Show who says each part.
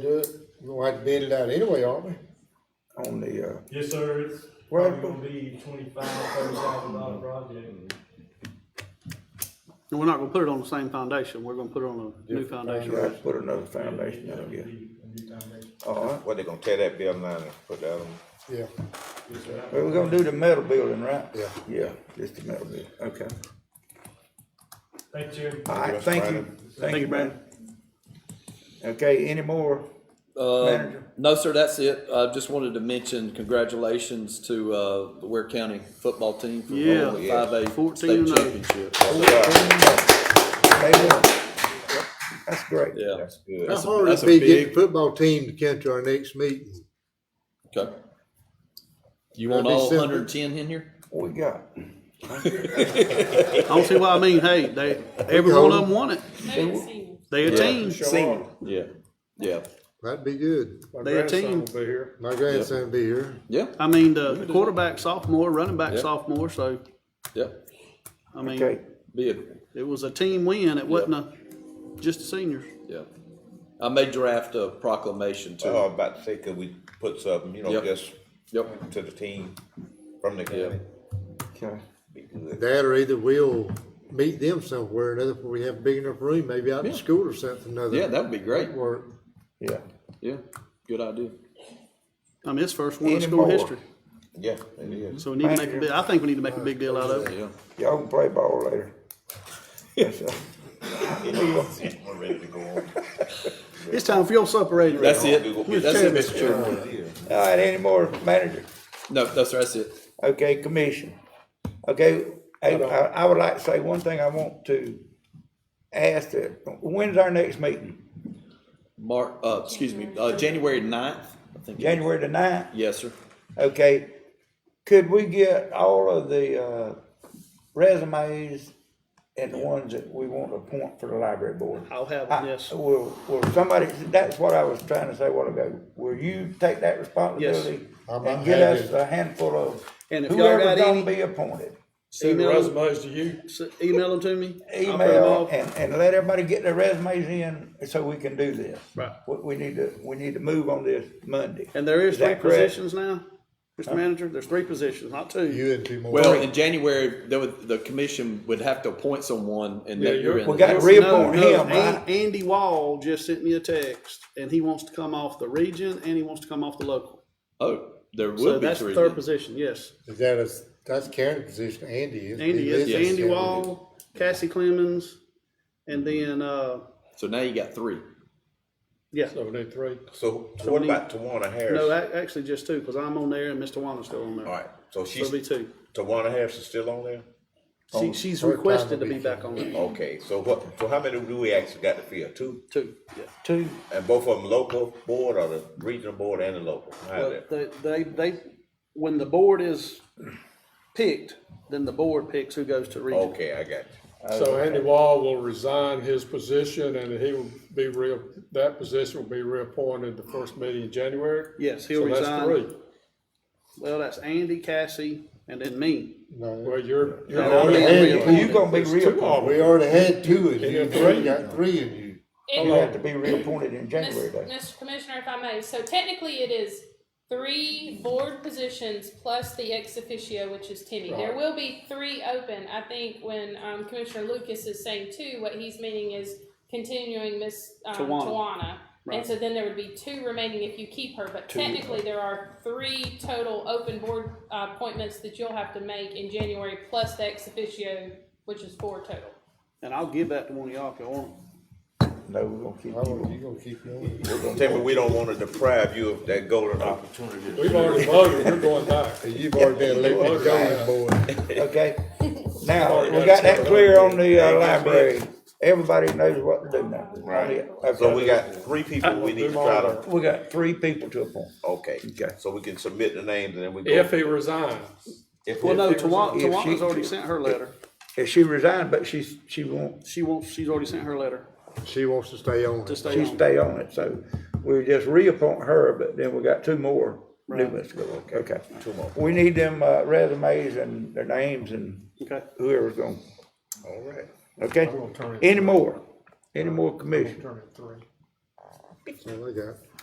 Speaker 1: do it, we'll have to bid it out anyway, aren't we?
Speaker 2: on the, uh,
Speaker 3: Yes, sir, it's
Speaker 2: Well,
Speaker 3: probably gonna be twenty-five, thirty thousand dollar project.
Speaker 4: And we're not gonna put it on the same foundation, we're gonna put it on a new foundation.
Speaker 2: you have to put another foundation down
Speaker 3: It'll
Speaker 2: again.
Speaker 3: be a new foundation.
Speaker 2: All right,
Speaker 5: What, they gonna tear that building down and put that on?
Speaker 1: Yeah,
Speaker 3: Yes, sir.
Speaker 2: well, we're gonna do the metal building, right?
Speaker 1: Yeah.
Speaker 2: Yeah, just the metal building, okay.
Speaker 3: Thank you.
Speaker 2: All right, thank you, thank you, man. Okay, any more?
Speaker 6: Uh,
Speaker 2: Manager.
Speaker 6: no, sir, that's it. I just wanted to mention congratulations to, uh, the Ware County football team for
Speaker 4: Yeah,
Speaker 6: winning the five A
Speaker 4: 14
Speaker 6: state
Speaker 4: and oh.
Speaker 6: championship.
Speaker 2: They will. That's great.
Speaker 6: Yeah,
Speaker 5: That's good.
Speaker 1: how
Speaker 5: That's
Speaker 1: hard
Speaker 7: that's
Speaker 1: it'd
Speaker 7: a
Speaker 1: be getting the
Speaker 7: big-
Speaker 1: football team to come to our next meeting.
Speaker 6: okay. You
Speaker 1: That'd
Speaker 6: want
Speaker 1: be
Speaker 6: all
Speaker 1: simple.
Speaker 6: hundred and ten in here?
Speaker 2: What we got?
Speaker 4: I don't see why, I mean, hey, they, every one of them won it,
Speaker 8: Maybe it's seniors.
Speaker 4: they a
Speaker 6: Yeah.
Speaker 4: team,
Speaker 2: Senior.
Speaker 6: Yeah, yeah,
Speaker 1: That'd be good.
Speaker 4: they a team.
Speaker 1: My grandson will be here.
Speaker 6: yeah,
Speaker 4: I mean, the quarterback sophomore, running back
Speaker 6: Yeah.
Speaker 4: sophomore, so,
Speaker 6: yeah.
Speaker 4: I mean,
Speaker 2: Okay,
Speaker 6: Be a,
Speaker 4: it was a team win, it wasn't a, just the seniors.
Speaker 6: yeah. I may draft a proclamation
Speaker 5: what I
Speaker 6: too.
Speaker 5: was about to say, could we put something, you know,
Speaker 6: Yep.
Speaker 5: just
Speaker 6: Yep,
Speaker 5: to the team from the county?
Speaker 2: okay.
Speaker 5: Be good.
Speaker 1: That or either we'll meet them somewhere or another, if we have a big enough room, maybe out in
Speaker 6: Yeah.
Speaker 1: school or something, another.
Speaker 6: yeah, that would be great.
Speaker 1: Work.
Speaker 2: Yeah.
Speaker 6: Yeah, good idea.
Speaker 4: I mean, it's first one in
Speaker 2: Any
Speaker 4: school
Speaker 2: more?
Speaker 4: history,
Speaker 5: Yeah, it is.
Speaker 4: so we need to make a
Speaker 2: Thank
Speaker 4: big,
Speaker 2: you.
Speaker 4: I think we need to make a big deal out of it.
Speaker 6: Yeah,
Speaker 2: Y'all can play ball later. That's all.
Speaker 5: We're ready to go on.
Speaker 4: It's time for your supper, Adrian.
Speaker 6: that's it.
Speaker 5: We gonna-
Speaker 6: That's it, Mr. Chairman.
Speaker 2: All right, any more, manager?
Speaker 6: No, no, sir, that's it.
Speaker 2: Okay, commission. Okay, I, I I would like to say one thing I want to ask, that- when's our next meeting?
Speaker 6: Mark, uh, excuse me, uh, January ninth, I think.
Speaker 2: January the ninth?
Speaker 6: Yes, sir.
Speaker 2: Okay, could we get all of the, uh, resumes and the ones that we want to appoint for the library board?
Speaker 4: I'll have
Speaker 2: I-
Speaker 4: them, yes.
Speaker 2: Will, will somebody, that's what I was trying to say a while ago, will you take that responsibility?
Speaker 1: I'm
Speaker 2: And get us
Speaker 1: happy.
Speaker 2: a handful of
Speaker 4: And if y'all got
Speaker 2: whoever's gonna
Speaker 4: any-
Speaker 2: be appointed?
Speaker 4: Send resumes to you. Email them to me. I'll print them
Speaker 2: email
Speaker 4: off.
Speaker 2: and, and let everybody get their resumes in so we can do this.
Speaker 4: Right.
Speaker 2: We, we need to, we need to move on this Monday.
Speaker 4: And there is three
Speaker 2: that correct?
Speaker 4: positions now, Mr. Manager, there's three positions, not two.
Speaker 1: You and two more.
Speaker 6: Well, in January, there would, the commission would have to appoint someone and then you're in.
Speaker 2: We
Speaker 6: there.
Speaker 2: got to
Speaker 4: No,
Speaker 2: reappoint
Speaker 4: no,
Speaker 2: him,
Speaker 4: An-
Speaker 2: right?
Speaker 4: Andy Wall just sent me a text and he wants to come off the region and he wants to come off the local.
Speaker 6: Oh, there
Speaker 4: So
Speaker 6: would be
Speaker 4: that's the
Speaker 6: three.
Speaker 4: third
Speaker 6: then.
Speaker 4: position, yes.
Speaker 1: Is that a, that's Karen's position, Andy is.
Speaker 4: Andy,
Speaker 1: He
Speaker 4: yes,
Speaker 1: lives in
Speaker 4: Andy
Speaker 1: San Luis.
Speaker 4: Wall, Cassie Clemens, and then, uh,
Speaker 6: So now you got three.
Speaker 4: yeah.
Speaker 5: So
Speaker 4: So
Speaker 5: what
Speaker 4: we need-
Speaker 5: about Tawana
Speaker 4: No,
Speaker 5: Harris?
Speaker 4: ac- actually just two, cause I'm on there and Mr. Wanna's still on there.
Speaker 5: All right, so
Speaker 4: So
Speaker 5: she's,
Speaker 4: it'll be two.
Speaker 5: Tawana Harris is still on there?
Speaker 4: She, she's
Speaker 1: part-time
Speaker 4: requested to
Speaker 1: will
Speaker 4: be
Speaker 1: be
Speaker 4: back on there,
Speaker 2: Oh.
Speaker 5: Okay, so what, so how many do we actually got to fill? Two?
Speaker 4: two, yeah.
Speaker 2: Two,
Speaker 5: And both of them local board or the regional board and the local? How's
Speaker 4: Well,
Speaker 5: that?
Speaker 4: They, they, they, when the board is picked, then the board picks who goes to region.
Speaker 5: Okay, I got you.
Speaker 9: So Andy Wall will resign his position and he will be re, that position will be reappointed the first meeting in January?
Speaker 4: Yes, he'll
Speaker 9: So that's
Speaker 4: resign.
Speaker 9: three.
Speaker 4: Well, that's Andy, Cassie, and then me.
Speaker 1: No,
Speaker 9: Well, you're, you're
Speaker 4: And I'm
Speaker 9: already,
Speaker 4: being
Speaker 1: Andy,
Speaker 2: you
Speaker 4: reappointed.
Speaker 2: gonna be
Speaker 9: there's two
Speaker 2: reappointed.
Speaker 9: already.
Speaker 1: we already had two in you,
Speaker 9: got
Speaker 1: now you
Speaker 9: three.
Speaker 1: got three in you.
Speaker 2: You
Speaker 8: And,
Speaker 2: have to be reappointed in January,
Speaker 8: Mis-
Speaker 2: though.
Speaker 8: Mr. Commissioner, if I may, so technically it is three board positions plus the ex officio, which is Timmy. There will be three open. I think when, um, Commissioner Lucas is saying two, what he's meaning is continuing Miss um,
Speaker 4: Tawana.
Speaker 8: Tawana.
Speaker 4: Right.
Speaker 8: And so then there would be two remaining if you keep her, but technically there are three total open board uh, appointments that you'll have to make in January, plus the ex officio, which is four total.
Speaker 4: And I'll give that to one of y'all if you want.
Speaker 2: No, we're gonna keep
Speaker 1: I
Speaker 2: you.
Speaker 1: don't- You gonna keep going?
Speaker 5: Tell me we don't wanna deprive you of that golden opportunity.
Speaker 9: we've already voted, you're going back.
Speaker 1: You've already been elected golden boy.
Speaker 2: Okay, now, we got that clear on the uh, library. Everybody knows what to do now.
Speaker 5: Right.
Speaker 2: Okay.
Speaker 5: So we got three people we need to try to,
Speaker 2: We got three people to appoint.
Speaker 5: okay, so we can submit the names and then we
Speaker 9: If
Speaker 5: go.
Speaker 9: he resigns,
Speaker 5: If
Speaker 4: Well, no,
Speaker 5: we-
Speaker 4: Tawana,
Speaker 2: if she-
Speaker 4: Tawana's already sent her letter.
Speaker 2: If she resigned, but she's, she won't,
Speaker 4: She wants, she's already sent her letter
Speaker 1: She wants to stay on.
Speaker 4: to
Speaker 1: it.
Speaker 4: stay
Speaker 2: she
Speaker 4: on.
Speaker 2: stay on it, so we just reappoint her, but then we got two more new ones to go, okay. Two more. We need them uh, resumes and their names and
Speaker 4: Okay.
Speaker 2: whoever's going,
Speaker 5: All right.
Speaker 2: okay?
Speaker 9: turn it-
Speaker 2: Any more, any more commission?
Speaker 9: turn it three.
Speaker 1: That's all I got.